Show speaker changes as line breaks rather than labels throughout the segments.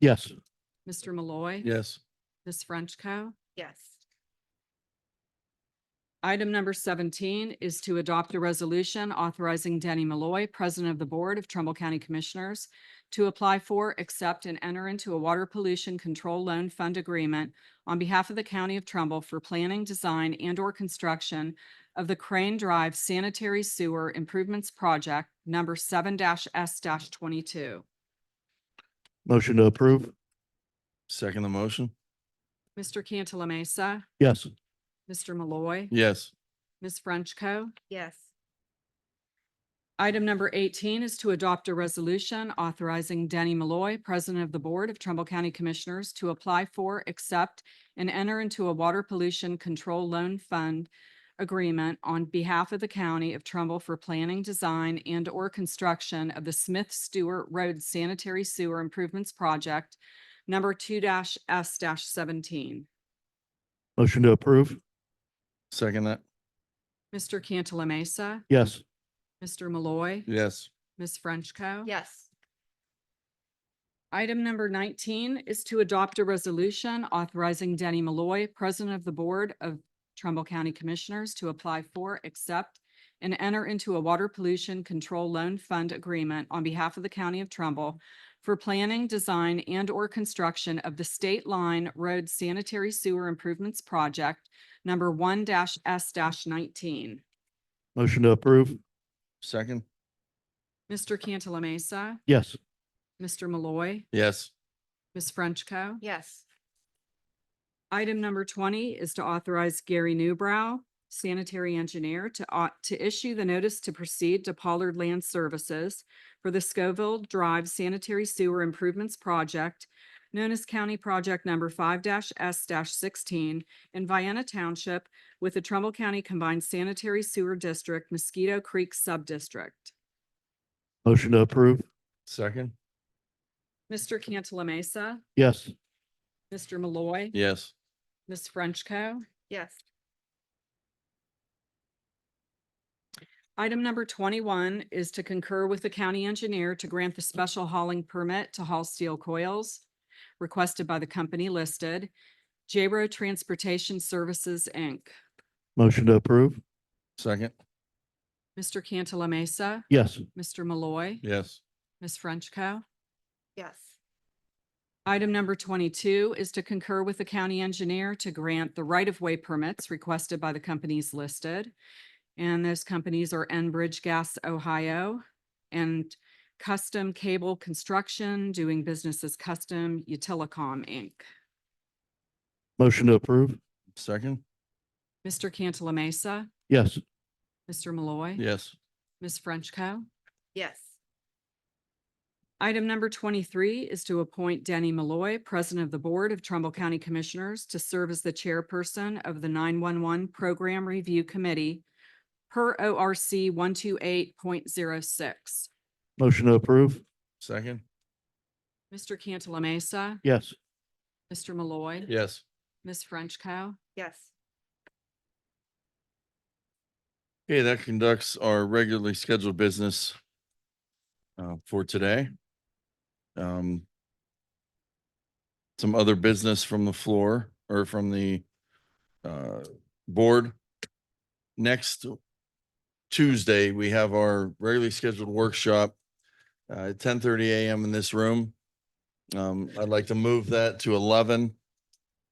Yes.
Mr. Malloy.
Yes.
Ms. Frenchco.
Yes.
Item number seventeen is to adopt a resolution authorizing Denny Malloy, President of the Board of Trumbull County Commissioners, to apply for, accept, and enter into a water pollution control loan fund agreement on behalf of the County of Trumbull for planning, design, and/or construction of the Crane Drive Sanitary Sewer Improvements Project, number seven S twenty-two.
Motion to approve.
Second the motion?
Mr. Cantala Mesa,
Yes.
Mr. Malloy,
Yes.
Ms. Frenchco.
Yes.
Item number eighteen is to adopt a resolution authorizing Denny Malloy, President of the Board of Trumbull County Commissioners, to apply for, accept, and enter into a water pollution control loan fund agreement on behalf of the county of Trumbull for planning, design, and/or construction of the Smith Stewart Road Sanitary Sewer Improvements Project, number two S seventeen.
Motion to approve.
Second that?
Mr. Cantala Mesa,
Yes.
Mr. Malloy,
Yes.
Ms. Frenchco.
Yes.
Item number nineteen is to adopt a resolution authorizing Denny Malloy, President of the Board of Trumbull County Commissioners, to apply for, accept, and enter into a water pollution control loan fund agreement on behalf of the County of Trumbull for planning, design, and/or construction of the State Line Road Sanitary Sewer Improvements Project, number one S nineteen.
Motion to approve.
Second?
Mr. Cantala Mesa,
Yes.
Mr. Malloy,
Yes.
Ms. Frenchco.
Yes.
Item number twenty is to authorize Gary Newbrow, sanitary engineer, to au- to issue the notice to proceed to Pollard Land Services for the Scoville Drive Sanitary Sewer Improvements Project, known as County Project Number five S sixteen in Vienna Township with the Trumbull County Combined Sanitary Sewer District Mosquito Creek Subdistrict.
Motion to approve.
Second?
Mr. Cantala Mesa,
Yes.
Mr. Malloy,
Yes.
Ms. Frenchco.
Yes.
Item number twenty-one is to concur with the county engineer to grant the special hauling permit to haul steel coils requested by the company listed, J Row Transportation Services, Inc.
Motion to approve.
Second?
Mr. Cantala Mesa,
Yes.
Mr. Malloy,
Yes.
Ms. Frenchco.
Yes.
Item number twenty-two is to concur with the county engineer to grant the right-of-way permits requested by the companies listed. And those companies are Enbridge Gas Ohio and Custom Cable Construction, doing business as Custom Utilicom, Inc.
Motion to approve.
Second?
Mr. Cantala Mesa,
Yes.
Mr. Malloy.
Yes.
Ms. Frenchco.
Yes.
Item number twenty-three is to appoint Danny Malloy, President of the Board of Trumbull County Commissioners, to serve as the chairperson of the nine-one-one Program Review Committee per O R C one-two-eight point zero six.
Motion to approve.
Second?
Mr. Cantala Mesa,
Yes.
Mr. Malloy,
Yes.
Ms. Frenchco.
Yes.
Okay, that conducts our regularly scheduled business uh, for today. Um, Some other business from the floor or from the uh, board. Next Tuesday, we have our regularly scheduled workshop uh, at ten thirty AM in this room. Um, I'd like to move that to eleven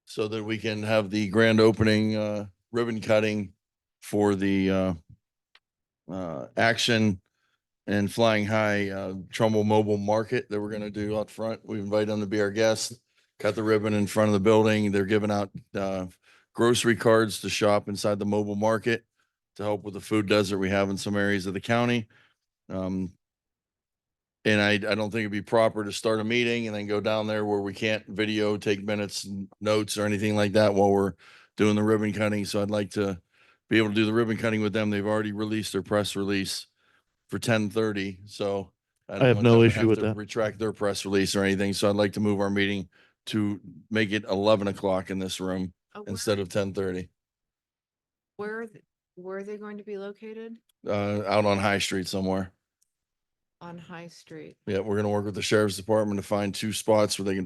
so that we can have the grand opening uh, ribbon cutting for the uh uh action and flying high uh Trumbull Mobile Market that we're gonna do out front. We invite them to be our guests. Cut the ribbon in front of the building. They're giving out uh grocery cards to shop inside the mobile market to help with the food desert we have in some areas of the county. Um and I I don't think it'd be proper to start a meeting and then go down there where we can't video, take minutes, n- notes or anything like that while we're doing the ribbon cutting. So I'd like to be able to do the ribbon cutting with them. They've already released their press release for ten thirty, so. don't
I have
want
no
them to
issue
have
with
to
that.
Retract their press release or anything, so I'd like to move our meeting to make it eleven o'clock in this room
Oh, where-
instead of ten thirty.
Where, are th- where are they going to be located?
Uh, out on High Street somewhere.
on High Street.
Yeah, we're gonna work with the sheriff's department to find two spots where they can